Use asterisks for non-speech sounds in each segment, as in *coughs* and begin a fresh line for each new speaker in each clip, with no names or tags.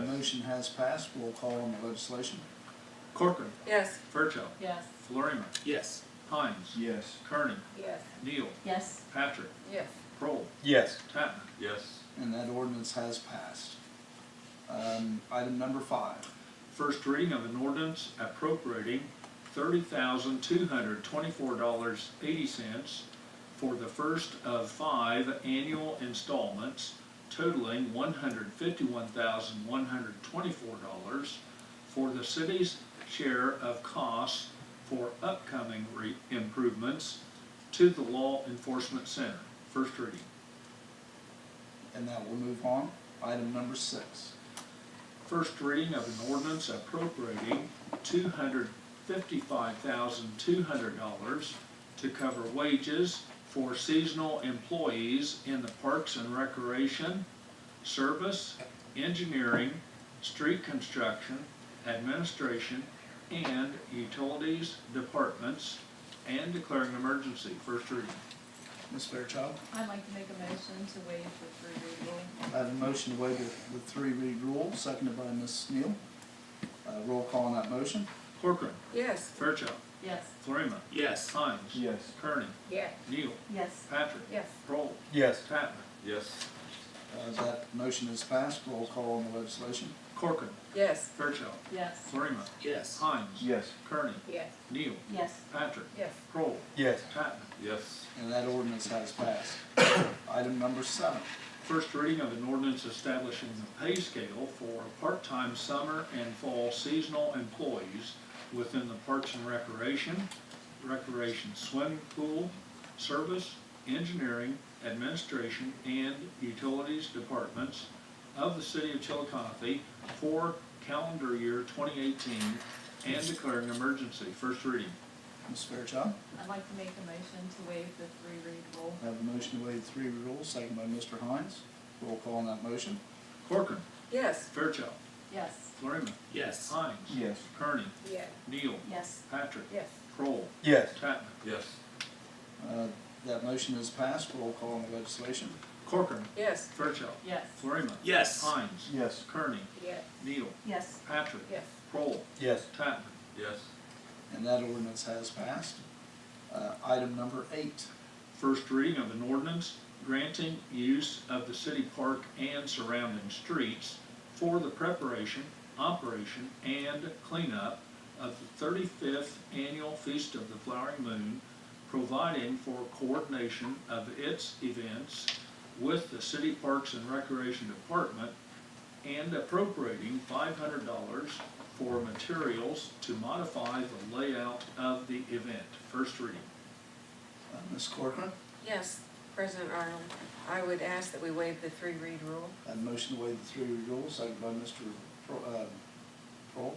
legislation has passed. Roll call on the legislation.
Corcoran,
Yes.
Fairchild,
Yes.
Florima,
Yes.
Hines,
Yes.
Kearney,
Yes.
Neal,
Yes.
Patrick,
Yes.
Prohl,
Yes.
Tatman.
Yes.
And that ordinance has passed. Um, item number five.
First reading of an ordinance appropriating thirty thousand two hundred twenty-four dollars eighty cents for the first of five annual installments totaling one hundred fifty-one thousand one hundred twenty-four dollars for the city's share of costs for upcoming re- improvements to the Law Enforcement Center. First reading.
And that will move on. Item number six.
First reading of an ordinance appropriating two hundred fifty-five thousand two hundred dollars to cover wages for seasonal employees in the Parks and Recreation, Service, Engineering, Street Construction, Administration, and Utilities Departments, and declaring an emergency. First reading.
Ms. Fairchild?
I'd like to make a motion to waive the three read rule.
I have a motion to waive the, the three read rule, seconded by Ms. Neal. Uh, roll call on that motion.
Corcoran,
Yes.
Fairchild,
Yes.
Florima,
Yes.
Hines.
Yes.
Kearney,
Yes.
Neal,
Yes.
Patrick.
Yes.
Prole,
Yes.
Tatman.
Yes.
Uh, that motion is passed. Roll call on the legislation.
Corcoran,
Yes.
Fairchild,
Yes.
Florima,
Yes.
Hines.
Yes.
Kearney,
Yes.
Neal,
Yes.
Patrick,
Yes.
Prohl,
Yes.
Tatman.
Yes.
And that ordinance has passed. *coughs* Item number seven.
First reading of an ordinance establishing the pay scale for part-time summer and fall seasonal employees within the Parks and Recreation, Recreation Swimming Pool, Service, Engineering, Administration, and Utilities Departments of the City of Chillicothe for calendar year 2018 and declaring emergency. First reading.
Ms. Fairchild?
I'd like to make a motion to waive the three read rule.
I have a motion to waive the three read rule, seconded by Mr. Hines. Roll call on that motion.
Corcoran,
Yes.
Fairchild,
Yes.
Florima,
Yes.
Hines,
Yes.
Kearney,
Yes.
Neal,
Yes.
Patrick,
Yes.
Kroll,
Yes.
Tatman.
Yes.
Uh, That motion is passed. Roll call on the legislation.
Corcoran,
Yes.
Fairchild,
Yes.
Florima.
Yes.
Hines,
Yes.
Kearney,
Yes.
Neal,
Yes.
Patrick,
Yes.
Kroll,
Yes.
Tatman.
Yes.
And that ordinance has passed. Uh, Item number eight.
First reading of an ordinance granting use of the city park and surrounding streets for the preparation, operation, and cleanup of the thirty-fifth annual Feast of the Flowering Moon, providing for coordination of its events with the City Parks and Recreation Department and appropriating five hundred dollars for materials to modify the layout of the event. First reading.
Uh, Ms. Corcoran,
Yes, President Arnold, I would ask that we waive the three read rule.
I have a motion to waive the three read rule, seconded by Mr. Pro- uh, Prohl.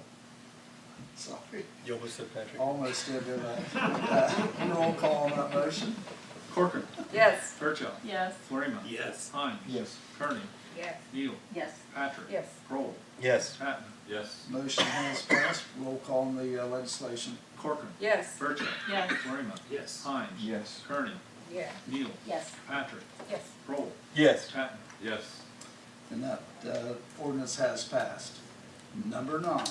Sorry,
Yo, what's up, Patrick?
almost did it. Uh, *laughs* Roll call on that motion.
Corcoran.
Yes.
Fairchild.
Yes.
Florima.
Yes.
Hines.
Yes.
Kearney.
Yes.
Neal.
Yes.
Patrick.
Yes.
Kroll.
Yes.
Tatman.
Yes.
Motion has passed. Roll call on the uh, legislation.
Corcoran.
Yes.
Fairchild.
Yes.
Florima.
Yes.
Hines.
Yes.
Kearney.
Yes.
Neal.
Yes.
Patrick.
Yes.
Kroll.
Yes.
Tatman.
Yes.
And that uh, ordinance has passed. Number nine.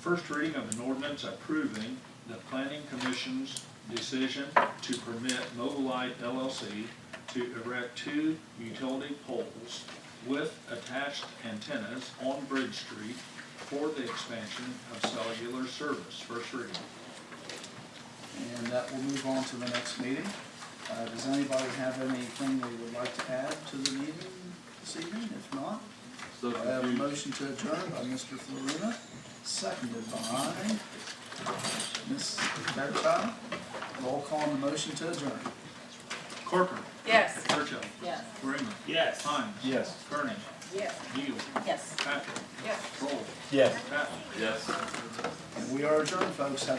First reading of an ordinance approving the planning commission's decision to permit Mobilite LLC to erect two utility poles with attached antennas on Bridge Street for the expansion of cellular service. First reading.
And that will move on to the next meeting. Uh, Does anybody have anything they would like to add to the meeting this evening? If not,
So
I have a
confused.
motion to adjourn by Mr. Florina, seconded by Ms. Fairchild. Roll call on the motion to adjourn.
Corcoran.
Yes.
Churchill.
Yes.
Freeman.
Yes.
Hines.
Yes.
Kearney.
Yes.
Neal.
Yes.
Patrick.
Yes.
Kroll.
Yes.
Patton.
Yes.
And we are adjourned, folks. Have a